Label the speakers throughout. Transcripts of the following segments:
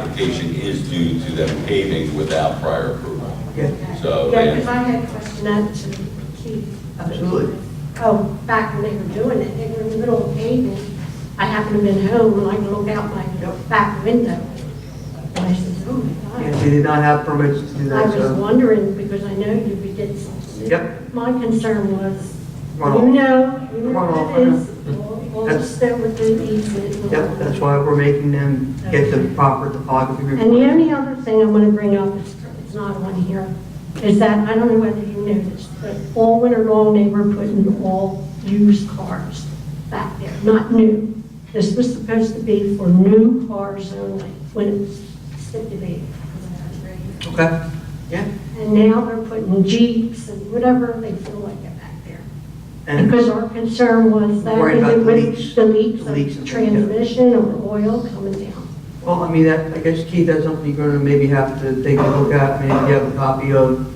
Speaker 1: application is due to them paving without prior approval. So,
Speaker 2: Yeah, because
Speaker 1: and-
Speaker 2: I had a question out to Keith.
Speaker 3: Absolutely.
Speaker 2: Oh, back when they were doing it, they were in the middle of paving. I happened to be at home and I looked out my
Speaker 3: Yep.
Speaker 2: back window. And I said, oh my
Speaker 3: And
Speaker 2: God.
Speaker 3: they did not have permits to do
Speaker 2: I
Speaker 3: that,
Speaker 2: was
Speaker 3: so.
Speaker 2: wondering because I know you we did something.
Speaker 3: Yep.
Speaker 2: My concern was, you
Speaker 3: Runoff.
Speaker 2: know, you know
Speaker 3: Runoff,
Speaker 2: what
Speaker 3: I
Speaker 2: it
Speaker 3: know.
Speaker 2: is. All- All the
Speaker 3: That's-
Speaker 2: stuff with the easement.
Speaker 3: Yep, that's why we're making them get the proper topography
Speaker 2: And the
Speaker 3: report.
Speaker 2: only other thing I want to bring up, is it's not on here, is that, I don't know whether you noticed, but all winter long, they were putting all used cars back there, not new. This was supposed to be for new cars only, when it was stipulated.
Speaker 3: Okay, yeah.
Speaker 2: And now they're putting Jeeps and whatever they feel like it back there.
Speaker 3: And
Speaker 2: Because our concern was that
Speaker 3: Worried about
Speaker 2: it
Speaker 3: leaks.
Speaker 2: would, the
Speaker 3: Leaks
Speaker 2: leaks
Speaker 3: and
Speaker 2: of
Speaker 3: things, yeah.
Speaker 2: transmission or oil coming down.
Speaker 3: Well, I mean, that, I guess Keith, that's something you're gonna maybe have to take a look at, maybe you have a copy of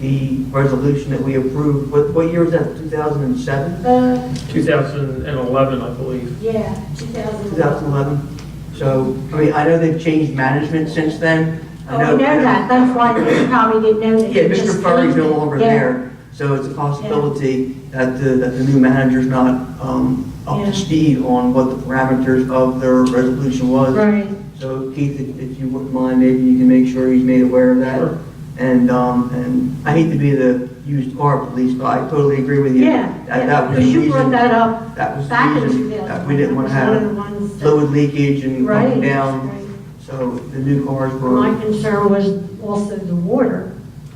Speaker 3: the resolution that we approved, what, what year was that, two thousand and seven?
Speaker 2: Uh,
Speaker 4: 2011, I believe.
Speaker 2: yeah,
Speaker 3: Two thousand
Speaker 2: 2011.
Speaker 3: eleven? So, I mean, I know they've changed management since then.
Speaker 2: Oh, I know that, that's why they probably didn't know that.
Speaker 3: Yeah,
Speaker 2: it just
Speaker 3: Mr. Furry's no
Speaker 2: came.
Speaker 3: longer
Speaker 2: Yeah.
Speaker 3: there, so it's a possibility that the, that the new manager's not, um, up
Speaker 2: Yeah.
Speaker 3: to speed on what the parameters of their resolution was.
Speaker 2: Right,
Speaker 3: So Keith, if- if you wouldn't mind, maybe you can make sure he's made aware of that.
Speaker 4: Sure.
Speaker 3: And, um, and I hate to be the used car police, but I totally agree with you.
Speaker 2: yeah,
Speaker 3: That, that
Speaker 2: yeah,
Speaker 3: was
Speaker 2: because
Speaker 3: the
Speaker 2: you brought
Speaker 3: reason,
Speaker 2: that up
Speaker 3: that was
Speaker 2: back
Speaker 3: the
Speaker 2: in
Speaker 3: reason
Speaker 2: 2000.
Speaker 3: that we didn't want to
Speaker 2: One of
Speaker 3: have
Speaker 2: the ones that-
Speaker 3: fluid leakage and
Speaker 2: Right,
Speaker 3: coming down.
Speaker 2: right.
Speaker 3: So the new cars were,
Speaker 2: My concern was also the water,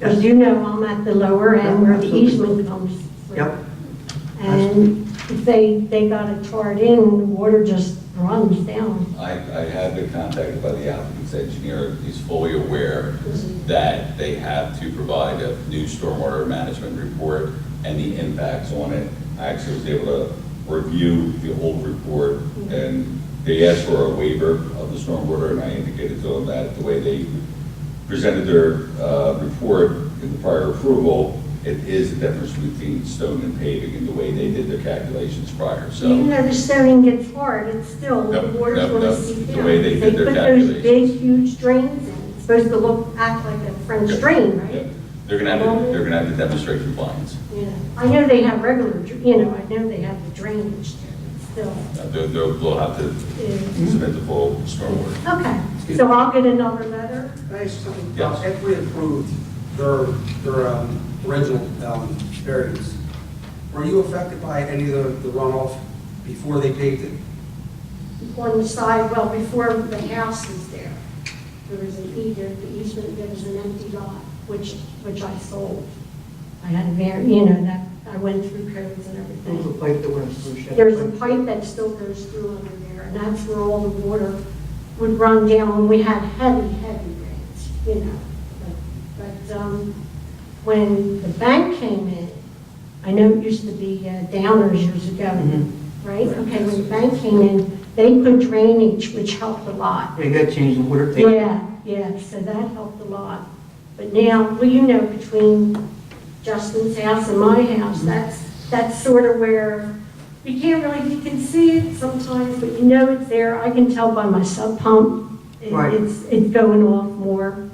Speaker 2: because
Speaker 3: Yes.
Speaker 2: you know I'm at the lower end
Speaker 3: Yeah,
Speaker 2: where the
Speaker 3: absolutely.
Speaker 2: easement comes. through.
Speaker 3: yep,
Speaker 2: And if they, they got it tarred in, the water just runs down.
Speaker 1: I, I have been contacted by the applicant's engineer, he's fully aware that they have to provide a new stormwater management report and the impacts on it. I actually was able to review the old report, and they asked for a waiver of the stormwater, and I indicated to them that the way they presented their uh, report in the prior approval, it is the difference between stone and paving in the way they did their calculations prior, so.
Speaker 2: Even though the stoning gets hard, it's still, the
Speaker 1: Yep,
Speaker 2: water's
Speaker 1: yep,
Speaker 2: gonna
Speaker 1: that's
Speaker 2: seep
Speaker 1: the
Speaker 2: down.
Speaker 1: way they did their
Speaker 2: put those big, huge drains in, it's supposed to look, act like a French
Speaker 1: Yep.
Speaker 2: drain, right?
Speaker 1: Yep. They're gonna have, to- they're gonna have to demonstrate compliance.
Speaker 2: Yeah. I know they have regular, dr- you know, I know they have the drainage, there, but still.
Speaker 1: Uh, They'll, they'll they'll have to
Speaker 2: yeah.
Speaker 1: submit the full stormwater.
Speaker 2: Okay, so I'll get another letter.
Speaker 5: Can I ask you something?
Speaker 1: Yes.
Speaker 5: Uh, If we approved their, their um, original um, variance, were you affected by any of the the runoff before they paved it?
Speaker 2: on the side, well, before the house was there, there was an eas- the easement, there was an empty lot, which, which I sold. I had a var, you know, that, I went through codes and
Speaker 3: there was a
Speaker 2: everything.
Speaker 3: pipe that went through Shepherd.
Speaker 2: There's a pipe that still goes through under there, and that's where all the water would run down when we had heavy, heavy rains, you know. But, but, um, when the bank came in, I know it used to be uh, Downers years ago,
Speaker 3: Mhm.
Speaker 2: Mm-hmm. right? Okay, when the bank came in, they put drainage, which helped a lot.
Speaker 3: Yeah, you gotta change the water table.
Speaker 2: Yeah, yeah, so that helped a lot. But now, well, you know, between Justin's house and my house, that's, that's sort of where, you can't really, you can see it sometimes, but you know it's there. I can tell by my sub pump, it-
Speaker 3: Right.
Speaker 2: it's, it's going off more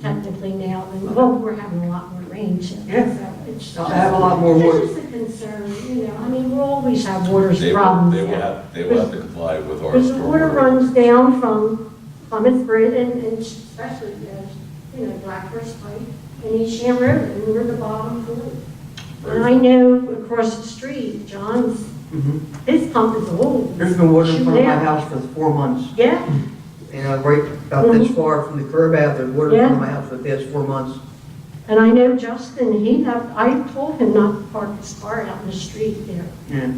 Speaker 2: technically now, and, well, we're having a lot more rain, so
Speaker 3: Yeah.
Speaker 2: it's
Speaker 3: I have a lot more
Speaker 2: it's
Speaker 3: water.
Speaker 2: just a concern, you know, I mean, we'll always have water
Speaker 1: They will,
Speaker 2: problems.
Speaker 1: they will
Speaker 2: yeah.
Speaker 1: have, they will have to comply with our
Speaker 2: Because the water
Speaker 1: stormwater.
Speaker 2: runs down from Plymouth Bridge and, and especially, uh, you know, Blackfish Pike and East Sham River, and we're the bottom pool. And I know across the street, John's,
Speaker 3: Mhm.
Speaker 2: his pump is old.
Speaker 3: There's been water in front of my
Speaker 2: Mm-hmm. Yeah.
Speaker 3: house for four months.
Speaker 2: Yeah,
Speaker 3: You know, right about this far from the curb out, there's water in front of
Speaker 2: Mm-hmm.
Speaker 3: my
Speaker 2: Yeah.
Speaker 3: house for the past four months.
Speaker 2: and I know Justin, he, had- I told him not to park his car out in the street there.
Speaker 3: Yeah.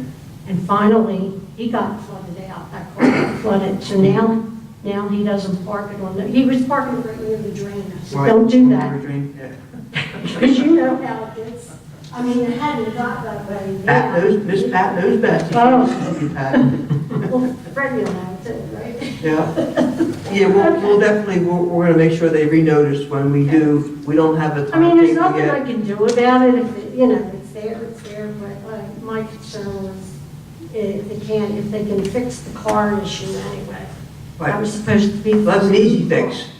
Speaker 2: And finally, he got flooded out, that car got flooded, so now, now he doesn't park it on the, he was parking right near the drain, I said,
Speaker 3: Right.
Speaker 2: don't do that.
Speaker 3: Yeah.
Speaker 2: Because you know how it is. I mean, it hadn't got that way.
Speaker 3: Pat knows, Miss Pat knows best.
Speaker 2: Oh.
Speaker 3: Oh.
Speaker 2: Well, Fred, you know, too, right?
Speaker 3: Yeah. Yeah, we'll, we'll definitely, we're, we're gonna make sure they renotice when we do. We don't have a
Speaker 2: I mean, there's
Speaker 3: timetable
Speaker 2: nothing I
Speaker 3: yet.
Speaker 2: can do about it if, it- you know, it's there, it's there, but uh, my eh, concern was if they can, if they can fix the car issue anyway.
Speaker 6: That was
Speaker 2: Right.
Speaker 6: supposed to be.
Speaker 2: That's an easy fix.